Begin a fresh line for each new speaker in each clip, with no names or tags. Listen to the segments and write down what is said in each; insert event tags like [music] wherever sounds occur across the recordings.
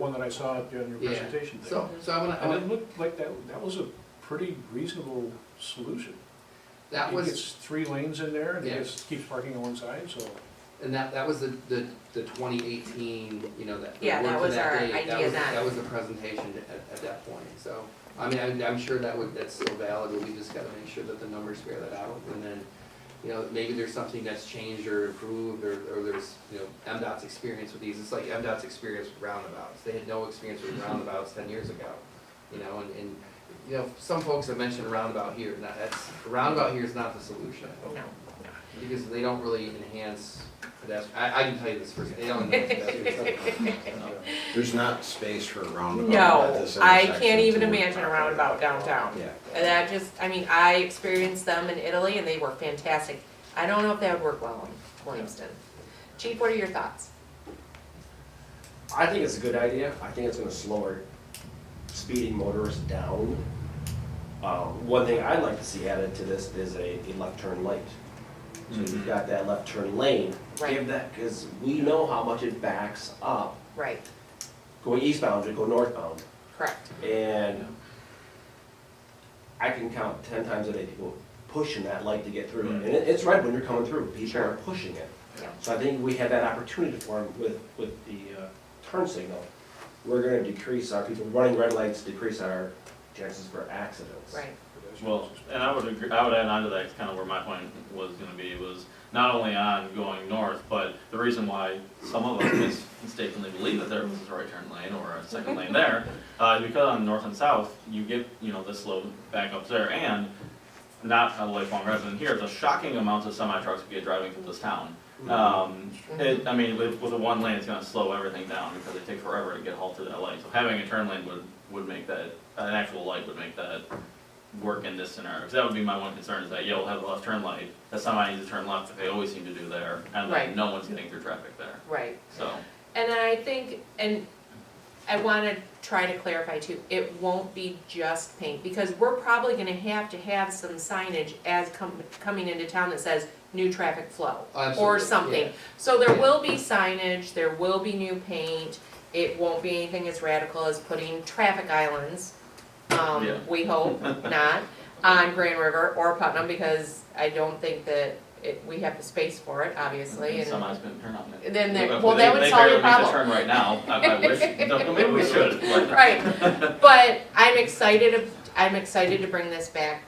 one that I saw at the- on your
Yeah,
presentation there.
so, uh, so I wanna, I
And it
wanna-
looked like that, that was a pretty reasonable solution.
that
It
was,
gets three lanes in there, and it
Yeah.
just keeps parking on one side, so.
and that, that was the, the, the twenty eighteen, you know, that, the
Yeah,
word
that
to
was
that
our
date, that
idea
was,
then.
that was the presentation at, at that point, so. I mean, I'm, I'm sure that would, that's still valid, but we just gotta make sure that the numbers bear that out, and then, you know, maybe there's something that's changed or improved, or, or there's, you know, MDOT's experience with these, it's like MDOT's experience with roundabouts, they had no experience with roundabouts ten years ago, you know, and, and, you know, some folks have mentioned roundabout here, and that- that's, roundabout here is not the solution.
No.
Because they don't really enhance pedestrian, I, I can tell you this first, they don't enhance pedestrian.
[laughs]
There's not space for a roundabout at
No,
this
I
intersection
can't even
to work
imagine a
properly.
roundabout downtown.
Yeah.
And that just, I mean, I experienced them in Italy and they were fantastic. I don't know if that would work well in Williamston. Chief, what are your thoughts?
I think it's a good idea. I think it's gonna slow our speeding motorists down. Um, one thing I'd like to see added to this is a, a left turn light. So you've got that left turn lane,
Right.
give that, cause we know how much it backs up.
Right,
Going eastbound to go northbound,
correct.
and I can count ten times a day people pushing that light to get through. And it, it's right when you're coming through, people are pushing it.
Mm. Yeah.
So I think we had that opportunity for them with, with the uh, turn signal. We're gonna decrease our, people running red lights, decrease our chances for accidents.
Right,
Well, and I would agree, I would add on to that, kind of where my point was gonna be, was not only on going north, but the reason why some of us mis- mistakenly believe that there was a right turn lane or a second lane there, uh, is because on north and south, you get, you know, the slow backups there, and not a lifelong resident here, the shocking amounts of semi trucks we get driving through this town. Um, it, I mean, with, with a one lane, it's gonna slow everything down, because it takes forever to get halted at light, so having a turn lane would, would make that, an actual light would make that work in this scenario, because that would be my one concern, is that you'll have a left turn light, that somebody needs to turn left, that they always seem to do there, and
Right.
then no one's getting through traffic there,
right.
so.
And I think, and I wanna try to clarify too, it won't be just paint, because we're probably gonna have to have some signage as com- coming into town that says new traffic flow. Or
Absolutely,
something,
yeah.
so there will be signage, there will be new paint, it won't be anything as radical as putting traffic islands.
Yeah.
Um, we hope not, on Grand River or Putnam, because I don't think that it, we have the space for it, obviously, and
Somebody's gonna turn on it.
Then there-
If
well, that
they-
would solve your
They barely make the turn right now, I,
[laughs]
I wish, don't- maybe we should, but-
Right, but I'm excited, of- I'm excited to bring this back,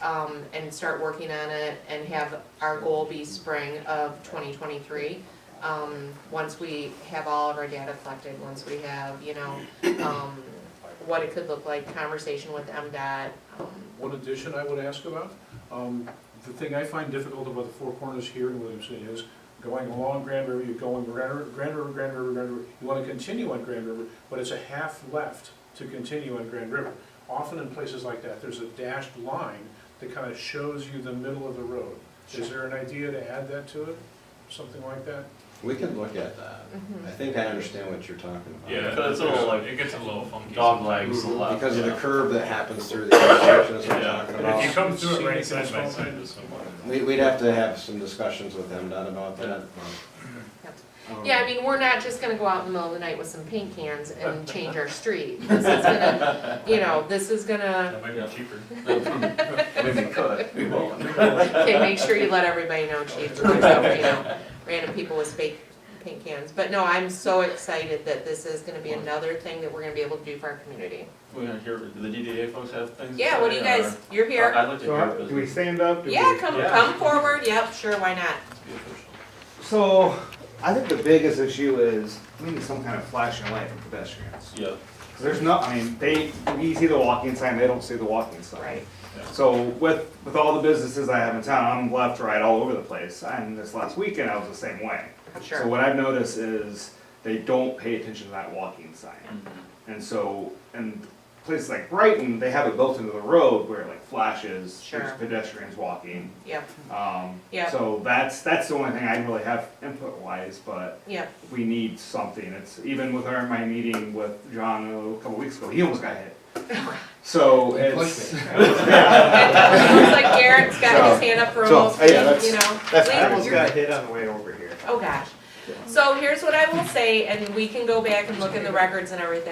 um, and start working on it and have our goal be spring of twenty twenty-three. Um, once we have all of our data collected, once we have, you know, um, what it could look like, conversation with MDOT, um,
One addition I would ask about, um, the thing I find difficult about the Four Corners here in Williamson is going along Grand River, you're going Grand River, Grand River, Grand River, Grand River. You wanna continue on Grand River, but it's a half left to continue on Grand River. Often in places like that, there's a dashed line that kinda shows you the middle of the road. Is there an idea to add that to it, something like that?
We can look at that. I think I understand what you're talking about.
Yeah, it's a little like,
it gets a little funky.
dog legs left,
Because of the
yeah.
curve that happens through the intersection, that's what I'm
Yeah.
talking
But if you
about.
come through it right
Seen it
side by
small
side
time.
with someone.
We, we'd have to have some discussions with MDOT about that. but, um,
Yeah, I mean, we're not just gonna go out in the middle of the night with some paint cans and change our street. This is gonna, you know, this is gonna,
That might
Yeah.
be cheaper.
[laughs] Maybe we could, we won't.
okay, make sure you let everybody know, chief, or yourself, you know, random people with fake paint cans. But no, I'm so excited that this is gonna be another thing that we're gonna be able to do for our community.
We're gonna hear, do the DDA folks have things to
Yeah, what do
say,
you
or-
guys, you're
Uh, I-
here?
I'd like to
So
hear
how-
this.
do we stand up? Do
Yeah,
we-
come,
Yeah.
come forward, yep, sure, why not?
So I think the biggest issue is we need some kind of flashing light for pedestrians.
Yeah,
'Cause There's no, I mean, they, we see the walking sign, they don't see the walking sign.
Right.
Yeah.
So with, with all the businesses I have in town, I'm left, right, all over the place. And this last weekend, I was the same way. So
Sure,
what I've noticed is they don't pay attention to that walking sign.
Hmm.
Mm.
And so, and places like Brighton, they have it built into the road where it like flashes,
Sure.
there's pedestrians walking.
yep,
Um,
Yeah.
So that's, that's the only thing I really have input wise, but
yep, [laughs]
we need something. It's, even with our, my meeting with John a couple weeks ago, he almost got hit. So
You pushed
it's,
me.
Looks like Garrett's got his hand up for
So-
almost,
so, yeah,
you know.
that's, I
Leave-
almost got hit on the way over here.
Oh, gosh. So here's what I will say, and we can go back and look in the records and everything.